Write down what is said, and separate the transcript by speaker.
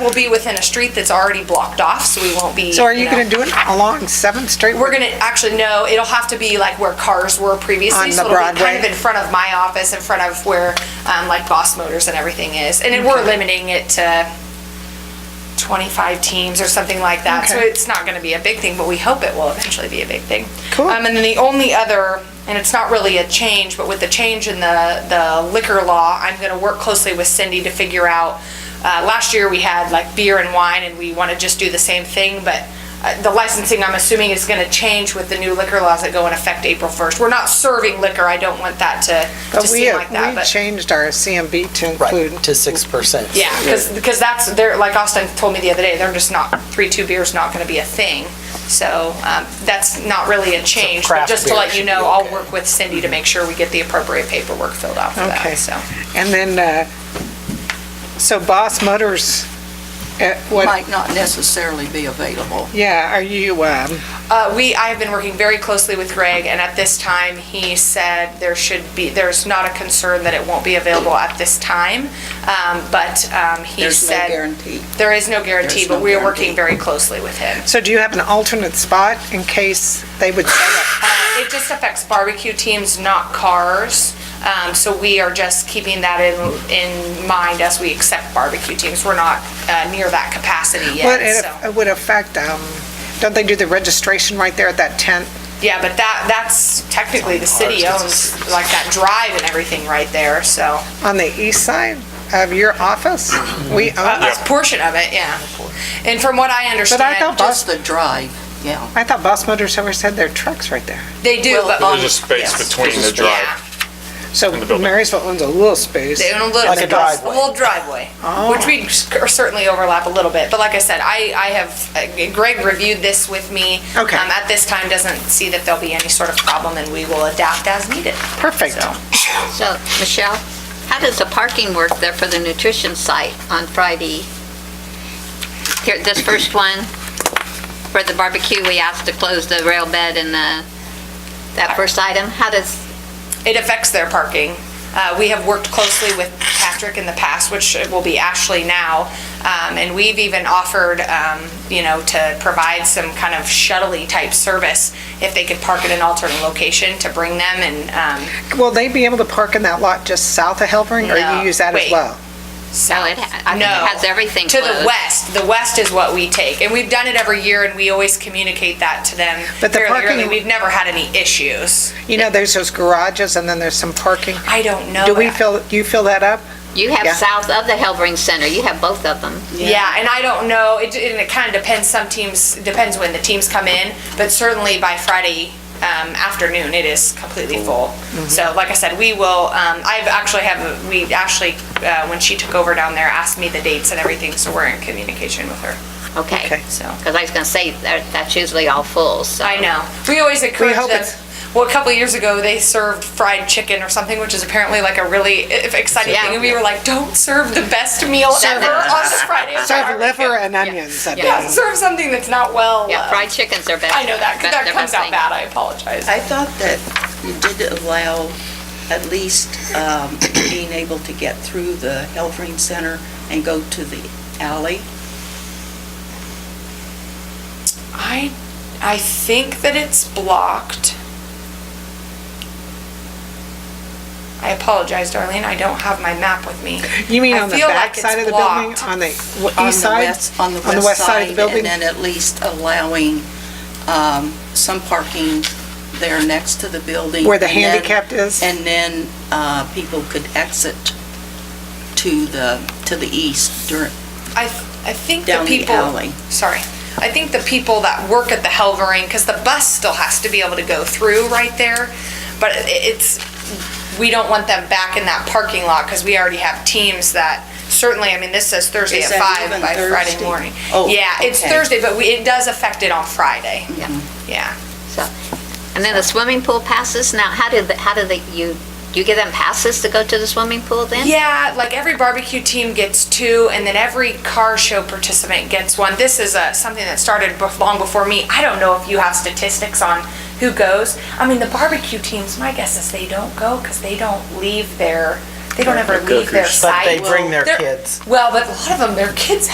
Speaker 1: will be within a street that's already blocked off, so we won't be.
Speaker 2: So are you
Speaker 1: know-
Speaker 2: gonna do it along Seventh Street?
Speaker 1: We're gonna, actually, no, it'll have to be like where cars were previously.
Speaker 2: On
Speaker 1: so
Speaker 2: the
Speaker 1: it'll be Kind of
Speaker 2: Broadway?
Speaker 1: in front of my office, in front of where, um, like Boss Motors and everything is. And then we're limiting it to twenty-five teams or something like that. So
Speaker 2: Okay.
Speaker 1: it's not gonna be a big thing, but we hope it will eventually be a big thing.
Speaker 2: Cool.
Speaker 1: Um, and then the only other, and it's not really a change, but with the change in the, the liquor law, I'm gonna work closely with Cindy to figure out, uh, last year we had like beer and wine and we wanna just do the same thing, but uh, the licensing, I'm assuming, is gonna change with the new liquor laws that go in effect April first. We're not serving liquor, I don't want that to, to
Speaker 2: But we,
Speaker 1: seem like that,
Speaker 2: we
Speaker 1: but.
Speaker 2: changed our CMB to
Speaker 3: Right,
Speaker 2: include,
Speaker 3: to 6%.
Speaker 1: Yeah, because, that's, they're, like Austin told me the other day, they're just not, three, two beer's not gonna be a thing. So, um, that's not really a change, but
Speaker 3: craft
Speaker 1: just to
Speaker 3: beer
Speaker 1: let you
Speaker 3: should
Speaker 1: know,
Speaker 3: be
Speaker 1: I'll
Speaker 3: okay.
Speaker 1: work with Cindy to make sure we get the appropriate paperwork filled out for
Speaker 2: Okay.
Speaker 1: that, so.
Speaker 2: and then, uh, so Boss Motors, uh, what,
Speaker 4: might not necessarily be available.
Speaker 2: yeah, are you, um,
Speaker 1: Uh, we, I have been working very closely with Greg, and at this time, he said there should be, there's not a concern that it won't be available at this time, um, but, um, he
Speaker 4: There's no
Speaker 1: said.
Speaker 4: guarantee.
Speaker 1: There is no guarantee,
Speaker 4: There's
Speaker 1: but
Speaker 4: no
Speaker 1: we are working very
Speaker 4: guarantee.
Speaker 1: closely with him.
Speaker 2: so do you have an alternate spot in case they would set up?
Speaker 1: Uh, It just affects barbecue teams, not cars. Um, So we are just keeping that in, in mind as we accept barbecue teams. We're not uh, near that capacity
Speaker 2: Well,
Speaker 1: yet,
Speaker 2: it
Speaker 1: so.
Speaker 2: it would affect, um, don't they do the registration right there at that tent?
Speaker 1: Yeah, but that, that's technically the city owns, like that drive and everything right there, so.
Speaker 2: On the east side of your office? We own
Speaker 1: A
Speaker 2: it.
Speaker 1: portion of it, yeah. And from what I understand.
Speaker 2: Uh, thought
Speaker 1: just-
Speaker 4: Just the drive, yeah.
Speaker 2: I thought Boss Motors always had their trucks right there.
Speaker 1: They do,
Speaker 4: Well,
Speaker 1: but.
Speaker 5: There's a space
Speaker 1: yes.
Speaker 5: between the
Speaker 1: Yeah,
Speaker 5: drive.
Speaker 2: So
Speaker 5: the building.
Speaker 2: Marysville owns a little space.
Speaker 1: They own a little.
Speaker 3: Like a driveway. Oh.
Speaker 1: little driveway, which we sc- certainly overlap a little bit. But like I said, I, I have, uh, Greg reviewed this with me.
Speaker 2: Okay.
Speaker 1: Um, At this time, doesn't see that there'll be any sort of problem and we will adapt as needed.
Speaker 2: Perfect.
Speaker 1: So,
Speaker 6: So, Michelle, how does the parking work there for the nutrition site on Friday? Here, this first one, for the barbecue, we asked to close the rail bed and the, that first item, how does,
Speaker 1: It affects their parking. Uh, we have worked closely with Patrick in the past, which will be Ashley now. Um, and we've even offered, um, you know, to provide some kind of shuttley type service if they could park at an alternate location to bring them and, um,
Speaker 2: Will they be able to park in that lot just south of Helpering, or
Speaker 1: No.
Speaker 2: you use that as
Speaker 1: Wait.
Speaker 2: well?
Speaker 1: south.
Speaker 6: No, it ha- I mean, it
Speaker 1: No.
Speaker 6: has everything
Speaker 1: To the
Speaker 6: closed.
Speaker 1: west, the west is what we take, and we've done it every year, and we always communicate that to them
Speaker 2: But the
Speaker 1: fairly
Speaker 2: parking-
Speaker 1: early. We've never had any issues.
Speaker 2: You know, there's those garages, and then there's some parking.
Speaker 1: I don't know.
Speaker 2: Do we
Speaker 1: that.
Speaker 2: fill, do you fill that up?
Speaker 6: you have
Speaker 2: Yeah.
Speaker 6: south of the Helbring Center, you have both of them.
Speaker 1: Yeah, and I don't know, it, and it kind of depends, some teams, depends when the teams come in, but certainly by Friday, um, afternoon, it is completely full.
Speaker 2: Mm-hmm.
Speaker 1: So like I said, we will, um, I've actually have, we, Ashley, uh, when she took over down there, asked me the dates and everything, so we're in communication with her,
Speaker 6: Okay.
Speaker 1: so.
Speaker 6: Because I was going to say, that that's usually all full, so.
Speaker 1: I know. We always encourage
Speaker 2: hope
Speaker 1: them.
Speaker 2: it's-
Speaker 1: Well, a couple of years ago, they served fried chicken or something, which is apparently like a really i- exciting
Speaker 6: Yeah.
Speaker 1: thing. And we were like, don't serve the best meal ever on a Friday. at
Speaker 2: Serve
Speaker 1: barbecue."
Speaker 2: liver and onions. I
Speaker 1: Yeah,
Speaker 2: believe.
Speaker 1: serve something that's not well.
Speaker 6: Yeah,
Speaker 1: uh,
Speaker 6: fried chickens are best.
Speaker 1: I know that,
Speaker 6: best-
Speaker 1: that
Speaker 6: they're
Speaker 1: comes
Speaker 6: best
Speaker 1: out
Speaker 6: thing.
Speaker 1: bad. I apologize.
Speaker 4: I thought that you did allow at least um, being able to get through the Helfring Center and go to the alley.
Speaker 1: I, I think that it's blocked. I apologize, Darlene. I don't have my map with me.
Speaker 2: You mean
Speaker 1: I
Speaker 2: on the
Speaker 1: feel like
Speaker 2: back
Speaker 1: it's
Speaker 2: side of the building,
Speaker 1: blocked.
Speaker 2: on the w-
Speaker 4: on the
Speaker 2: east side?
Speaker 4: west- On the west
Speaker 2: of the
Speaker 4: side,
Speaker 2: building?
Speaker 4: and then at least allowing um, some parking there next to the building.
Speaker 2: Where the
Speaker 4: and then-
Speaker 2: handicapped is?
Speaker 4: And then uh, people could exit to the, to the east during,
Speaker 1: I, th- I think the
Speaker 4: down the
Speaker 1: people.
Speaker 4: alley.
Speaker 1: sorry. I think the people that work at the Helvering, because the bus still has to be able to go through right there, but i- it's, we don't want them back in that parking lot, because we already have teams that, certainly, I mean, this says Thursday
Speaker 4: Is
Speaker 1: at
Speaker 4: that
Speaker 1: five
Speaker 4: even
Speaker 1: by Friday
Speaker 4: Thursday?
Speaker 1: morning.
Speaker 4: Oh,
Speaker 1: Yeah, it's
Speaker 4: okay.
Speaker 1: Thursday, but we, it does affect it on Friday,
Speaker 6: Yeah.
Speaker 1: yeah.
Speaker 6: So, and then the swimming pool passes, now, how did, the- how do they, you, you give them passes to go to the swimming pool then?
Speaker 1: Yeah, like every barbecue team gets two, and then every car show participant gets one. This is a, something that started bef- long before me. I don't know if you have statistics on who goes. I mean, the barbecue teams, my guess is they don't go because they don't leave their, they don't ever leave their
Speaker 3: But
Speaker 1: site.
Speaker 3: they bring their
Speaker 1: They're-
Speaker 3: kids.
Speaker 1: Well, but a lot of them, their kids